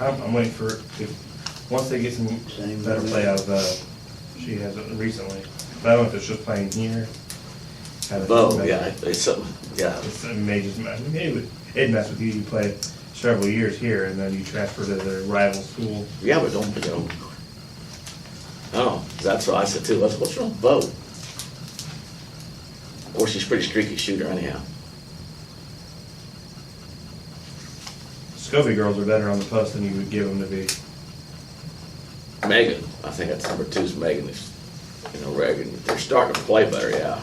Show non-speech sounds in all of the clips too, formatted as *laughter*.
I'm, I'm waiting for, if, once they get some Same better with play that. out of, uh, she has it recently. But I don't know if it's just playing here. how that- Oh, yeah, it's something, yeah, It's, it may just mess, it would, it mess with you, you play several years here and then you transfer to the rival school. yeah, but don't, you know. Oh, that's what I said too, I said, what's wrong with Bo? Of course, she's a pretty streaky shooter anyhow. Scobie girls are better on the post than you would give them to be. Megan, I think that's number two's Megan, is, you know, Reagan, they're starting to play better, yeah.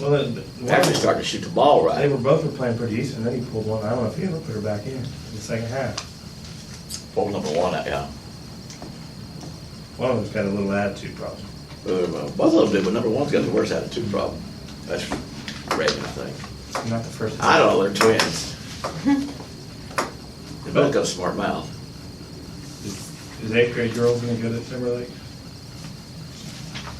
Well, the, the one- They're Actually starting to shoot the ball they right. were both were playing pretty decent, then he pulled one, I don't know if he ever put her back in, in the second half. Ball number one, yeah. One of them's got a little attitude problem. Uh, well, Both of them did, but number one's got the worst attitude problem. That's Reagan, I think. Not the first. I don't know, they're *laughs* twins. They both got a smart mouth. Is is eighth grade girls gonna go to Timberlake?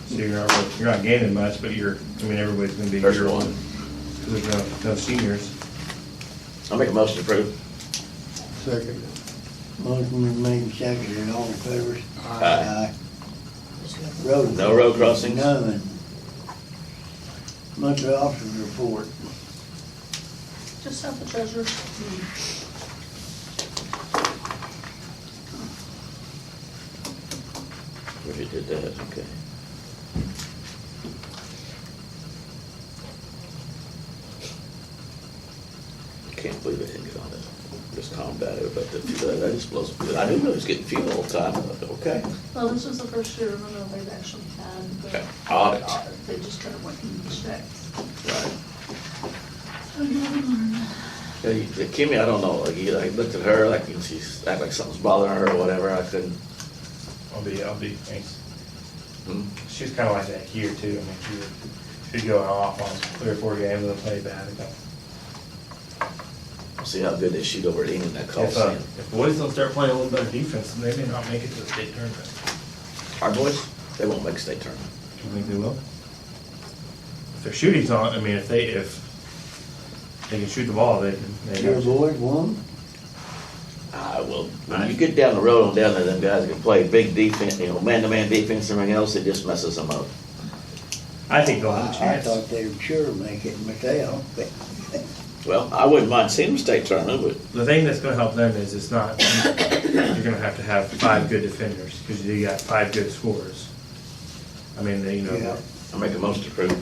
So you're not, you're not gaining much, but you're, I mean, everybody's gonna be. There's here. one. Cause there's no, no seniors. I'll make a motion to approve. Second. Motion been made and seconded, all in favor? Aye. Road. No road crossings? None. Monthly officer report. Just have the treasurer. We already did that, okay. Can't believe they didn't get on that, just combat it, but the- that just blows, I knew it was getting fuel all the time, but okay. Well, this was the first year, remember, they've actually had the. Okay, audit. They just kind of went and checked. Right. Yeah, you- the Kimmy, I don't know, like, you, I looked at her, like, and she's, act like something's bothering her or whatever, I couldn't, I'll be, I'll be, thanks. hmm, She's kinda like that here too, I mean, she would, she'd go off on three or four games and play bad. and go, see how good they shoot over at Enid, that call If, uh, scene. if boys don't start playing a little better defense, then they may not make it to the state tournament. Our boys, they won't make state tournament. Do you think they will? If their shooting's on, I mean, if they, if they can shoot the ball, they can. they Your got- boy, one, I will, when Ah, you get down the road on down there, them guys can play big defense, you know, man-to-man defense and everything else, it just messes them up. I think they'll I have a I chance. thought they would sure make it, but they don't. Well, I wouldn't mind seeing them state tournament, but The thing that's gonna help them is it's not, *coughs* you're gonna have to have five good defenders, because you got five good scorers. I mean, they, you know, Yeah. I make a motion to approve.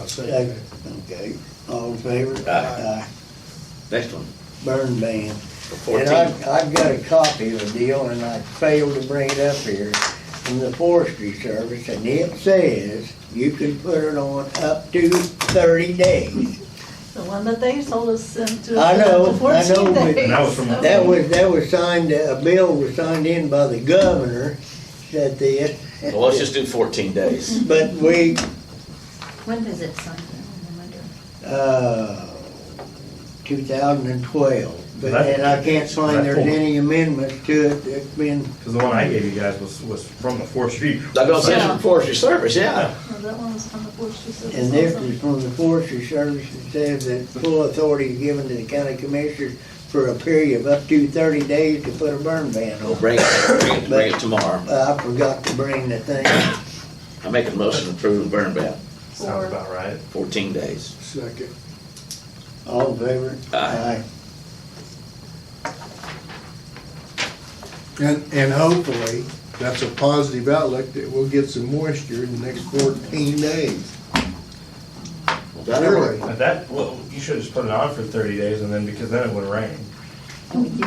I'll second Second. it. Okay, all in favor? Aye. Next one, Burn ban. for And fourteen. I've, I've got a copy of the deal and I failed to bring it up here from the forestry service and it says you can put it on up to thirty days. The one that they sold us sent to. I us know, after 14 I know, but- days. That was from- That was, that was signed, a bill was signed in by the governor that the. Well, let's just do fourteen days. But we, When does it sign Oh in? I wonder. uh, two thousand and twelve, but, That- and I can't find there's that- any amendments to it that's been, because the one I gave you guys was, was from the fourth street. That goes in Yeah. for forestry service, yeah. No, That one was from the forestry service. and this also. is from the forestry service, it says that full authority is given to the county commissioners for a period of up to thirty days to put a burn ban We'll on. bring it, bring it, bring it tomorrow. Uh, I forgot to bring the thing, I make a motion to approve burn ban, Sounds about right. fourteen days. Second. all in favor? Aye. And, and hopefully, that's a positive outlook that we'll get some moisture in the next fourteen days. Really? But that, well, you should have just put it on for thirty days and then, because then it would rain.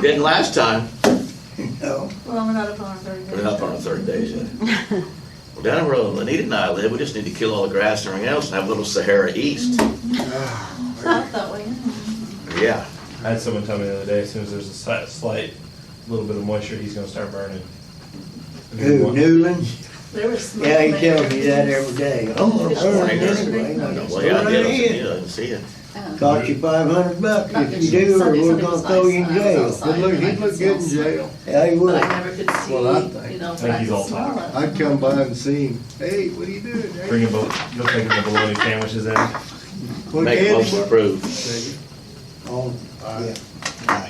Didn't last time, No, Well, we're not up on our third. we're up on our third day yet. Well, down the road, Lenita and I live, we just need to kill all the grass and everything else and have a little Sahara East. Not that way. Yeah. I had someone tell me the other day, as soon as there's a slight, slight little bit of moisture, he's gonna start burning. who, Newland? There was. smoke Yeah, he there. tells me that every day. Oh, I'm gonna It's burn Morning, it there's- anyway. I don't know, Throw yeah, I it did, I in. said, yeah, I didn't see it. Um, Cost you five hundred bucks Not if that you she- do, or Sunday, we're Sunday gonna was throw you in nice. I was jail. Good look, I he'd could look good in smell jail. Yeah, you Oh, But would. I never could see, Well, I think- you know, I if think I he's all could smell it. I'd come by and see him, hey, what are you doing? Hey, Bringing, you'll take the bologna sandwiches in. what Make a candy motion to bar? approve. Second. Oh, Aye. yeah.